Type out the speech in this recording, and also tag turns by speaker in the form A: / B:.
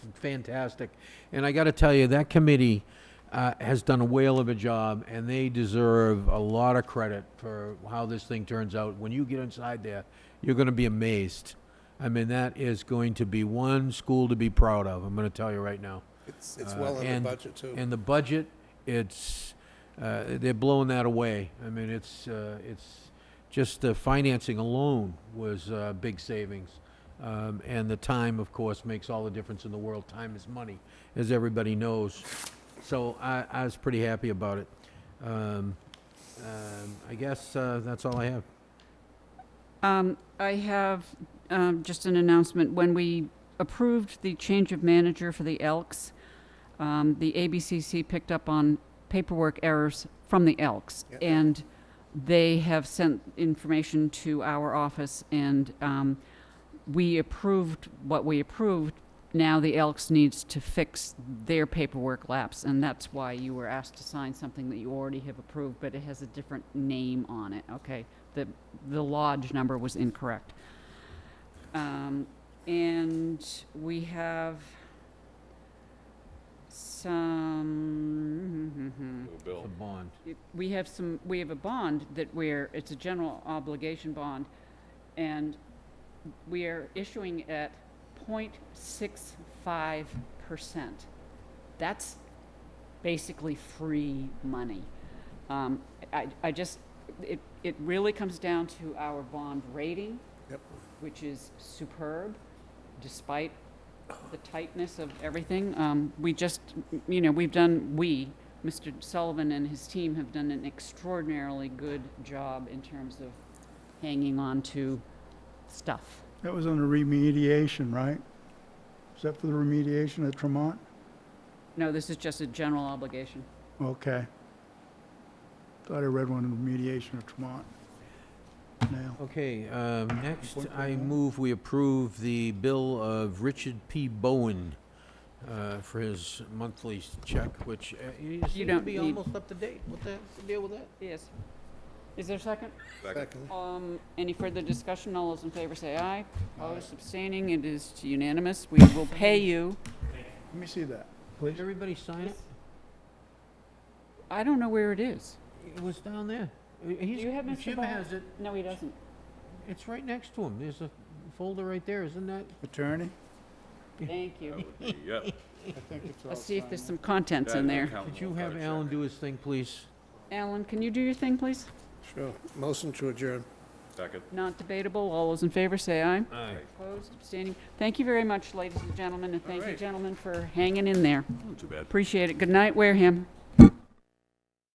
A: fantastic. And I got to tell you, that committee uh, has done a whale of a job, and they deserve a lot of credit for how this thing turns out. When you get inside there, you're going to be amazed. I mean, that is going to be one school to be proud of. I'm going to tell you right now.
B: It's, it's
A: Uh,
B: well in
A: and-
B: the budget too.
A: And the budget, it's, uh, they're blowing that away. I mean, it's, uh, it's, just the financing alone was uh, big savings. Um, And the time, of course, makes all the difference in the world. Time is money, as everybody knows. So I, I was pretty happy about it. Um, um, I guess uh, that's all I have.
C: Um, I have, um, just an announcement. When we approved the change of manager for the Elks, um, the ABCC picked up on paperwork errors from the Elks.
B: Yeah.
C: And they have sent information to our office and, um, we approved what we approved. Now the Elks needs to fix their paperwork lapse, and that's why you were asked to sign something that you already have approved, but it has a different name on it, okay? The, the lodge number was incorrect. Um, and we have some,
A: The bond.
C: it- we have some, we have a bond that we're, it's a general obligation bond, and we are issuing at 0.65 percent. That's basically free money. Um, I, I just, it, it really comes down to our bond rating,
B: Yep.
C: which is superb, despite the tightness of everything. Um, we just, you know, we've done, we, Mr. Sullivan and his team have done an extraordinarily good job in terms of hanging on to stuff.
D: That was on the remediation, right? Except for the remediation at Tremont?
C: No, this is just a general obligation.
D: Okay. Thought I read one on remediation at Tremont. Now,
A: Okay, um, next,
D: Point
A: I
D: one.
A: move we approve the bill of Richard P. Bowen uh, for his monthly check, which uh, he seems to
C: don't
A: be
C: need-
A: almost up to date. What the heck's the deal with that?
C: Yes. Is there a second?
B: Second.
C: Um, any further discussion? All those in favor say aye. Opposed, abstaining, it is unanimous. We will pay you.
D: let me see that.
A: Did everybody sign it?
C: I don't know where it is.
A: It was down there. Uh,
C: Do you have
A: He's,
C: Mr.
A: Jim
C: Bowen?
A: has it.
C: No, he doesn't.
A: It's right next to him. There's a folder right there, isn't that?
D: Attorney?
C: Thank you.
E: Yep.
D: I think it's
C: Let's see if there's some contents in there.
A: Could you have Alan do his thing, please?
C: Alan, can you do your thing, please?
B: Sure. Motion to adjourn.
E: Second.
C: Not debatable. All those in favor say aye.
A: Aye.
C: Opposed, abstaining. Thank you very much, ladies and gentlemen, and thank you,
B: right.
A: Hmm.
C: gentlemen, for hanging in there.
E: Too bad.
C: Appreciate it. Good night, Wareham.